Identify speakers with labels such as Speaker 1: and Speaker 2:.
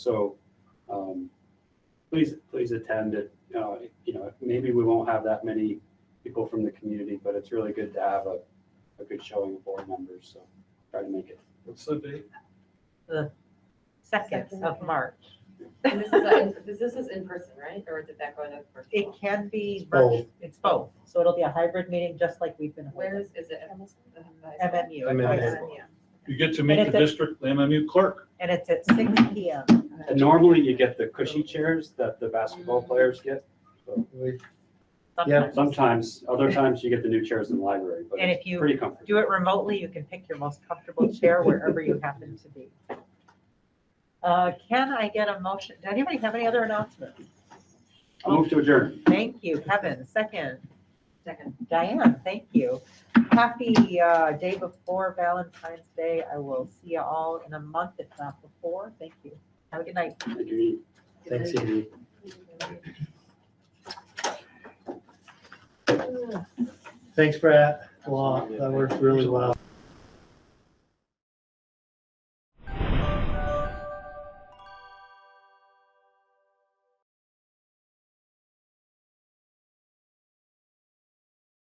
Speaker 1: So, um, please, please attend it. Uh, you know, maybe we won't have that many people from the community, but it's really good to have a, a good showing of board members, so try to make it.
Speaker 2: What's the date?
Speaker 3: second
Speaker 4: Second.
Speaker 3: of March.
Speaker 4: And this is, a- this this is in person, right? Or did that go in a
Speaker 3: It
Speaker 4: virtual?
Speaker 3: can be,
Speaker 2: Both.
Speaker 3: virtu- it's both, so it'll be a hybrid meeting, just like we've been.
Speaker 4: Where is, is it? at the- the-
Speaker 3: MMU.
Speaker 2: MMU.
Speaker 4: Yeah.
Speaker 2: You get to meet
Speaker 3: And
Speaker 2: the
Speaker 3: it's a-
Speaker 2: district, the MMU clerk.
Speaker 3: And it's at six P M.
Speaker 1: And normally you get the cushy chairs that the basketball players get.
Speaker 3: sometimes.
Speaker 1: Sometimes, other times you get the new chairs in the library, but
Speaker 3: And
Speaker 1: it's
Speaker 3: if you
Speaker 1: pretty comfortable.
Speaker 3: do it remotely, you can pick your most comfortable chair wherever you happen to be. Uh, Can I get a motion? Does anybody have any other announcements?
Speaker 1: I'll move to adjourn.
Speaker 3: Thank you, Kevin. Second,
Speaker 4: Second.
Speaker 3: Diane, thank you. Happy uh, day before Valentine's Day. I will see you all in a month, if not before. Thank you. Have a good night.
Speaker 1: Thank you, Eve. Thanks, Eve.
Speaker 5: Thanks, Brad. Wow, that worked really well.